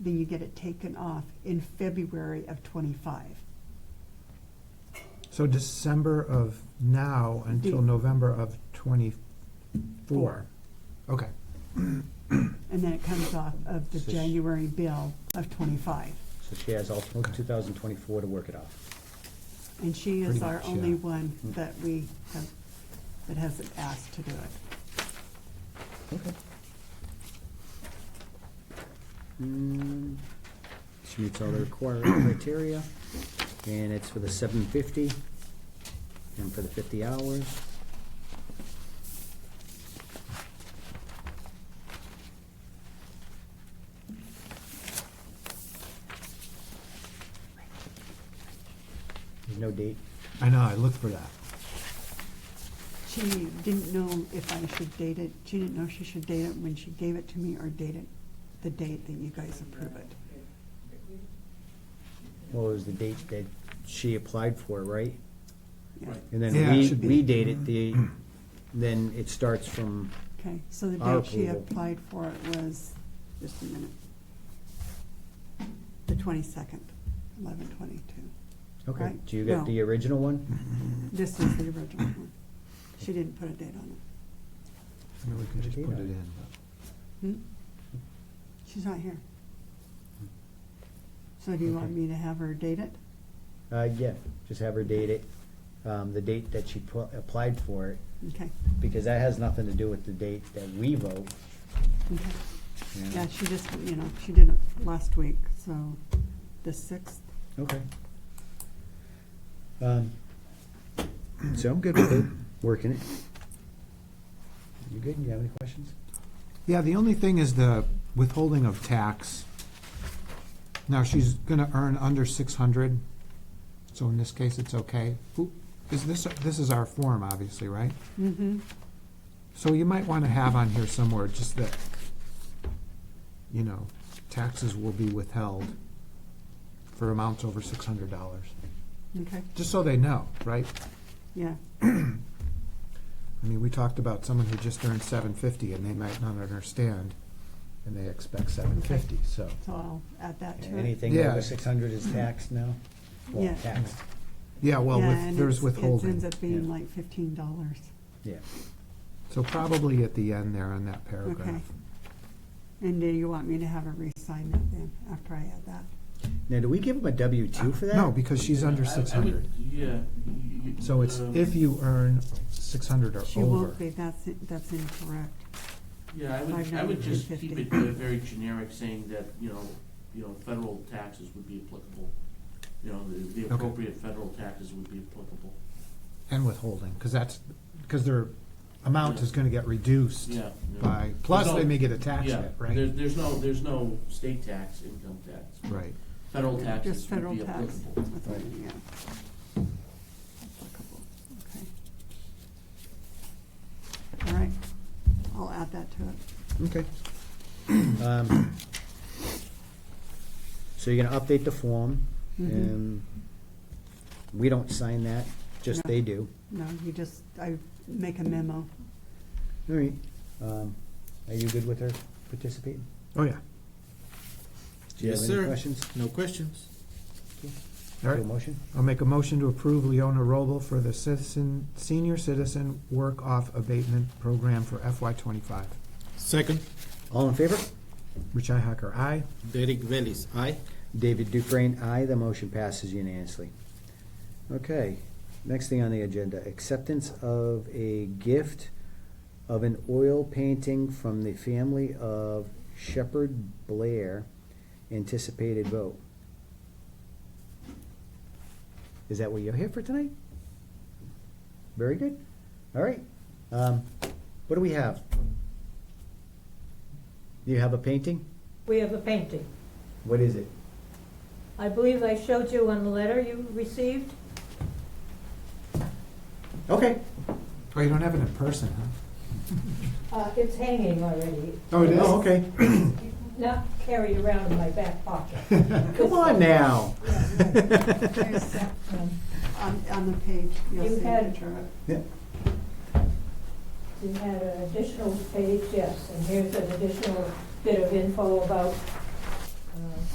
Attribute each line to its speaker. Speaker 1: then you get it taken off in February of twenty-five.
Speaker 2: So December of now until
Speaker 1: Mm.
Speaker 2: November of twenty-four. Okay,
Speaker 1: And then it comes off of the
Speaker 3: So sh-
Speaker 1: January bill of twenty-five.
Speaker 3: So she has all
Speaker 2: Okay.
Speaker 3: two thousand twenty-four to work it off.
Speaker 1: And she is
Speaker 2: Pretty
Speaker 1: our
Speaker 2: much, yeah.
Speaker 1: only one
Speaker 3: Mm.
Speaker 1: that we have, that hasn't asked to do it.
Speaker 3: Okay. Mm, She meets all the required criteria, and it's for the seven fifty, and for the fifty hours. There's no date.
Speaker 2: I know, I looked for that.
Speaker 1: She didn't know if I should date it, she didn't know she should date it when she gave it to me or date it the date that you guys approve it.
Speaker 3: What was the date that she applied for, right?
Speaker 1: Yeah.
Speaker 3: And then
Speaker 2: Yeah, it
Speaker 3: we,
Speaker 2: should be. Mm-hmm.
Speaker 3: we date it, the, then it starts from,
Speaker 1: Okay, so the
Speaker 3: Our
Speaker 1: date she
Speaker 3: approval.
Speaker 1: applied for it was, just a minute, the twenty-second, eleven twenty-two.
Speaker 3: okay,
Speaker 1: Right.
Speaker 3: do you get
Speaker 1: No.
Speaker 3: the original
Speaker 2: Mm-hmm.
Speaker 3: one?
Speaker 1: This is the original one. She didn't put a date on it.
Speaker 2: I mean, we could just
Speaker 3: Okay,
Speaker 2: put it
Speaker 3: then.
Speaker 2: in,
Speaker 1: Hmm? She's not here. So do you want
Speaker 3: Okay.
Speaker 1: me to have her date it?
Speaker 3: Uh, yeah, just have her date it, um, the date that she pu- applied for it,
Speaker 1: Okay,
Speaker 3: because that has nothing to do with the date that we vote.
Speaker 1: okay.
Speaker 3: you know.
Speaker 1: Yeah, she just, you know, she did it last week, so the sixth.
Speaker 3: Okay. Um, So I'm good with it, working it. You good, you have any questions?
Speaker 2: Yeah, the only thing is the withholding of tax. Now, she's gonna earn under six hundred, so in this case, it's okay. Who- Is this, this is our form, obviously, right?
Speaker 1: Mm-hmm.
Speaker 2: So you might wanna have on here somewhere just that, you know, taxes will be withheld for amounts over six hundred dollars,
Speaker 1: Okay,
Speaker 2: just so they know, right?
Speaker 1: yeah,
Speaker 2: I mean, we talked about someone who just earned seven fifty and they might not understand, and they expect seven fifty, so.
Speaker 1: so I'll add that to it.
Speaker 3: Anything
Speaker 2: Yeah.
Speaker 3: over six hundred is taxed now? Well,
Speaker 1: Yeah.
Speaker 3: Taxed,
Speaker 2: Yeah, well,
Speaker 1: Yeah,
Speaker 2: with,
Speaker 1: and
Speaker 2: there's
Speaker 1: it's- It ends
Speaker 2: withholding.
Speaker 1: up being
Speaker 3: Yeah.
Speaker 1: like fifteen dollars.
Speaker 3: yeah.
Speaker 2: So probably at the end there on that paragraph.
Speaker 1: And do you want me to have her re-sign that then, after I add that?
Speaker 3: Now, do we give them a W two for that?
Speaker 2: No, because she's under
Speaker 4: I- I would-
Speaker 2: six hundred.
Speaker 4: Yeah. y- y-
Speaker 2: So it's
Speaker 4: um,
Speaker 2: if you earn six hundred or
Speaker 1: She
Speaker 2: over.
Speaker 1: won't be, that's, that's incorrect.
Speaker 4: Yeah, I would, I would just keep it
Speaker 1: 590.
Speaker 4: uh, very generic, saying that, you know, you know, federal taxes would be applicable. You know, the- the
Speaker 2: Okay.
Speaker 4: appropriate federal taxes would be applicable.
Speaker 2: And withholding, because that's, because their amount is gonna get reduced
Speaker 4: Yeah. no.
Speaker 2: by, plus
Speaker 4: There's
Speaker 2: they
Speaker 4: no-
Speaker 2: may get a tax
Speaker 4: yeah,
Speaker 2: hit,
Speaker 4: There,
Speaker 2: right?
Speaker 4: there's no, there's no state tax, income tax.
Speaker 2: Right.
Speaker 4: Federal taxes
Speaker 1: Just
Speaker 4: would
Speaker 1: federal
Speaker 4: be
Speaker 1: tax.
Speaker 4: applicable.
Speaker 1: that's what
Speaker 3: Right.
Speaker 1: it- yeah. Applicable, okay. All right, I'll add that to it.
Speaker 3: Okay. Um, So you're gonna update the form,
Speaker 1: Mhm.
Speaker 3: and we don't sign that, just
Speaker 1: No.
Speaker 3: they do.
Speaker 1: No, you just, I make a memo.
Speaker 3: All right. Um, Are you good with her participating?
Speaker 2: Oh, yeah.
Speaker 3: Do you have
Speaker 5: Yes,
Speaker 3: any
Speaker 5: sir.
Speaker 3: questions?
Speaker 5: No questions.
Speaker 2: All
Speaker 3: Do a
Speaker 2: right.
Speaker 3: motion?
Speaker 2: I'll make a motion to approve Leona Robel for the citizen, senior citizen work off abatement program for FY twenty-five.
Speaker 5: Second,
Speaker 3: All in favor?
Speaker 2: Richi Hacker, aye.
Speaker 5: Derek Bellis, aye.
Speaker 3: David Dufresne, aye. The motion passes unanimously. Okay, next thing on the agenda, acceptance of a gift of an oil painting from the family of Shepherd Blair, anticipated vote. Is that what you're here for tonight? Very good. All right. Um, What do we have? You have a painting?
Speaker 6: We have a painting.
Speaker 3: What is it?
Speaker 6: I believe I showed you on the letter you received.
Speaker 3: Okay.
Speaker 2: Oh, you don't have it in person, huh?
Speaker 6: Uh, It's hanging already,
Speaker 2: Oh, it is?
Speaker 3: Oh, okay.
Speaker 6: not carried around in my back pocket.
Speaker 3: Come on now.
Speaker 1: There's,
Speaker 6: Um,
Speaker 1: On, on the page, you'll
Speaker 6: You
Speaker 1: see a
Speaker 6: had-
Speaker 1: picture of it.
Speaker 6: You had an additional page, yes, and here's an additional bit of info about uh,